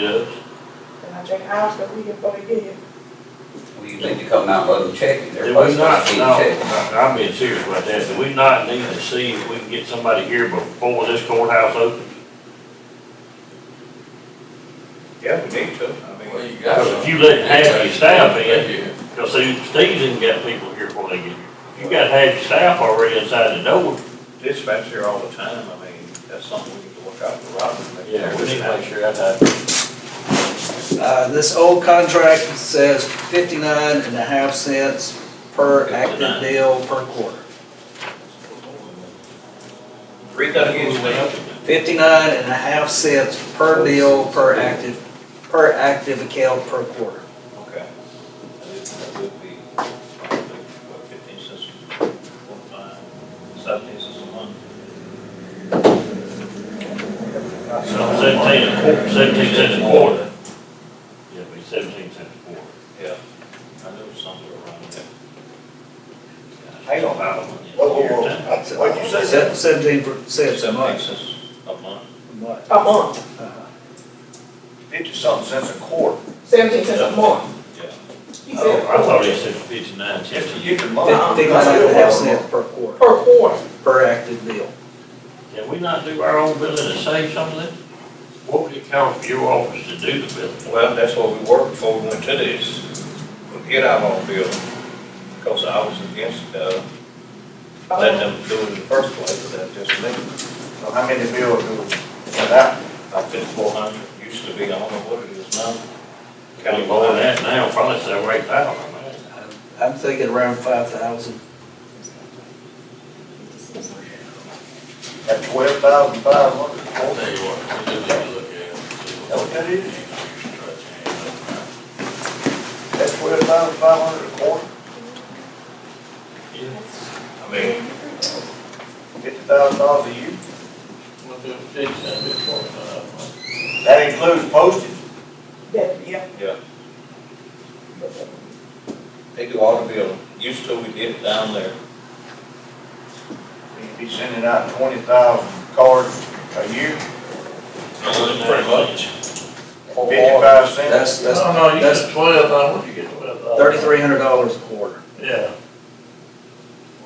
Yes, And I check hours a week before they get here. Well, you need to come out and let them check it. They're do we supposed not, to be no, checked. I'm being serious about that, do we not need to see if we can get somebody here before this courthouse opens? Yeah, we need to, I mean, Well, you got Because if some. you let half your staff in, Thank you. because see, Steve's even got people here before they get here. You got half your staff already inside the door. dispatch here all the time, I mean, that's something we need to look out for, Robert. sure I that. Uh, this old contract says fifty-nine and a half cents per 59. active deal per quarter. Read that again, Steve. Fifty-nine and a half cents per deal per active, per active account per quarter. Okay. That is- that would be, what, fifteen cents, four, five, seventeen cents a month. So seventeen a quarter, seventeen cents a quarter. Yeah, it'd be seventeen cents a quarter. Yeah, I knew something around that. Hang on, Whoa, whoa, whoa. That's- What'd you say? Se- Seventeen cents a Seventeen month. cents a month. A month, Fifty something cents a quarter. seventeen cents a month. Yeah. He Oh, said I thought he said fifty-nine cents. If you get the money. Fifty-nine and a half cents per quarter, per quarter. per active deal. Can we not do our own billing to save some of this? What would it cost your office to do the billing? Well, that's what we worked for we went to this, we get our own building. Because I was against, uh, letting them do it in the first place, but that just me. So how many bills do we send out? I think four hundred used to be, I don't know what it is now. Kind of more than that now, probably seven, eight thousand, man. I'm- I'm thinking around five thousand. At twelve thousand five hundred. I'll tell you what, we just need to look at it. and see That what- what that is? At twelve thousand five hundred a quarter, I mean, fifty thousand dollars a year. Well, if it's fixed, that'd be four thousand. That includes postage. That, yeah. yeah. They do all the building, used to we did it down there. You'd be sending out twenty thousand cards a year, Pretty much. fifty-five cents. That's, that's No, no, you that's- get twelve, now what'd you get twelve dollars? thirty-three hundred dollars a quarter. Yeah,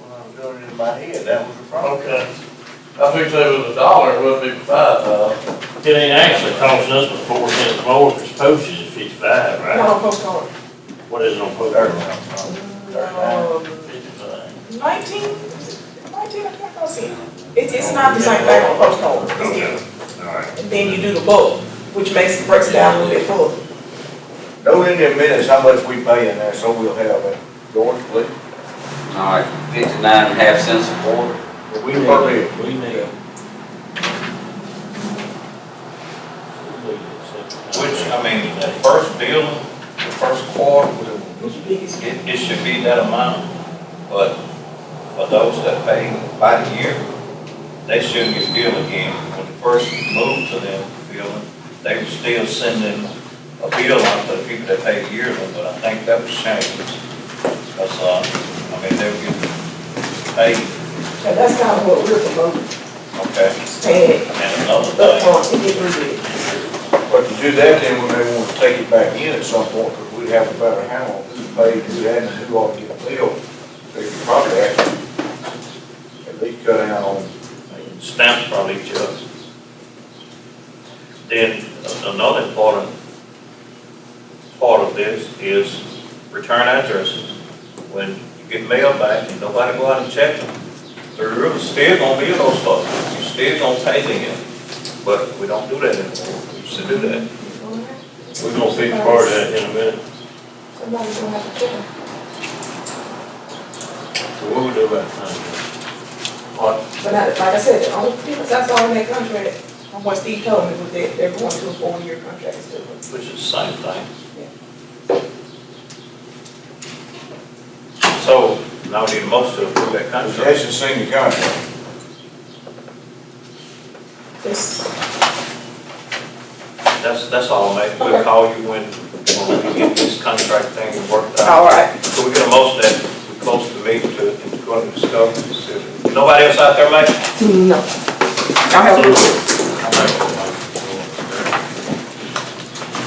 When I was doing it in my head, that was the problem. okay. I figured if it was a dollar, it wouldn't be five thousand. It ain't actually costing us but four cents more, because postage is fifty-five, Not right? on postcard. What is it on Thirty postage? thousand. Um, Fifty-five. Nineteen, nineteen or twenty cents. It's, it's not the same thing on postcard. It's different. Alright. And then you do the bulk, which makes, breaks it down a little bit further. Note in the minutes how much we pay in there, so we'll have it. George, please. All right, fifty-nine and a half cents a quarter. We need- We need. Which, I mean, the first building, the first quarter, whatever. What's your biggest? It, it should be that amount, but for those that pay by the year, they shouldn't get billed again. When the first moved to them billing, they were still sending a bill out to the people that paid yearly, but I think that was changed. That's, uh, I mean, they were getting paid, And that's kind of what we're promoting, okay, is paying and another thing, upfront and get rid of it. But to do that, then we may want to take it back in at some point, because we'd have a better handle on who paid, who hadn't, who ought to get billed. So you could probably actually at least cut down on stamps probably just. Then another important part of this is return addresses. When you get mail back and nobody go out and check them, the river's still gonna be in those folks, you still gonna pay them. But we don't do that anymore, we used to do that. We're gonna fix part of that in a minute. Somebody's gonna have to check. it. So what we do about that? But I- like I said, the only difference I saw in that contract, from what Steve told me, was that they're going to a four-year contract instead of Which is the same thing. So, now we need a motion to approve that contract. possession senior contract. this. That's, that's all, mate. We'll call you when, when we get this contract thing worked out. All right. So we're gonna motion that, we close the meeting to, to go into discovery. Nobody else out there, mate? No. Y'all have a good one.